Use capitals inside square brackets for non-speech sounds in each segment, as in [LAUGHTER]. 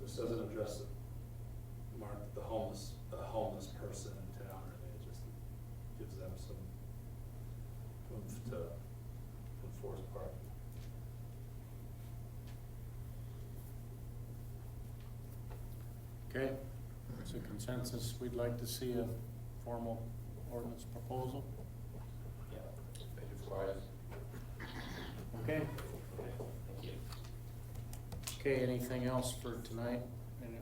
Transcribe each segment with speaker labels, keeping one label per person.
Speaker 1: This doesn't address the, Mark, the homeless, the homeless person in town, really, it just gives them some oomph to enforce parking.
Speaker 2: Okay, it's a consensus, we'd like to see a formal ordinance proposal.
Speaker 3: Thank you for quiet.
Speaker 2: Okay,
Speaker 3: Thank you.
Speaker 2: okay, anything else for tonight? Any, uh,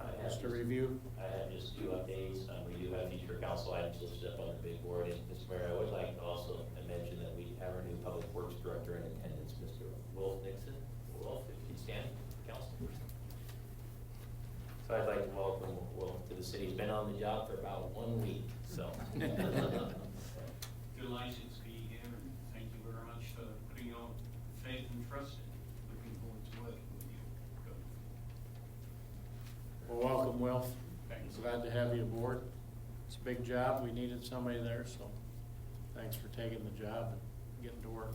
Speaker 3: I have
Speaker 2: Just a
Speaker 3: just-
Speaker 2: review?
Speaker 3: I have just two updates. Um, we do have future council items listed up on the big board. And Mr. Mayor, I would like to also mention that we have our new public works director in attendance, Mr. Wolf Nixon. Wolf, if you stand, council. So I'd like to welcome Wolf to the city. He's been on the job for about one week, so. [LAUGHS]
Speaker 4: delighted to be here, and thank you very much for putting your faith and trust in. Looking forward to working with you. Good.
Speaker 2: Well, welcome, Wilf.
Speaker 4: Thanks.
Speaker 2: Glad to have you aboard. It's a big job, we needed somebody there, so thanks for taking the job and getting to work.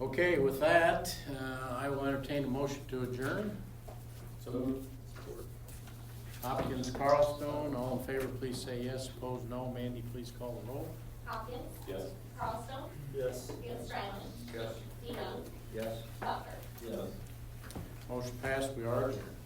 Speaker 2: Okay, with that, uh, I will entertain a motion to adjourn. So Hopkins, Carlstone, all in favor, please say yes, opposed no. Mandy, please call the roll.
Speaker 5: Hopkins.
Speaker 3: Yes.
Speaker 5: Carlstone.
Speaker 1: Yes.
Speaker 5: Van Strylen.
Speaker 3: Yes.
Speaker 5: DeYoung.
Speaker 3: Yes.
Speaker 5: Bucker.
Speaker 3: Yes.
Speaker 2: Motion passed, we are adjourned.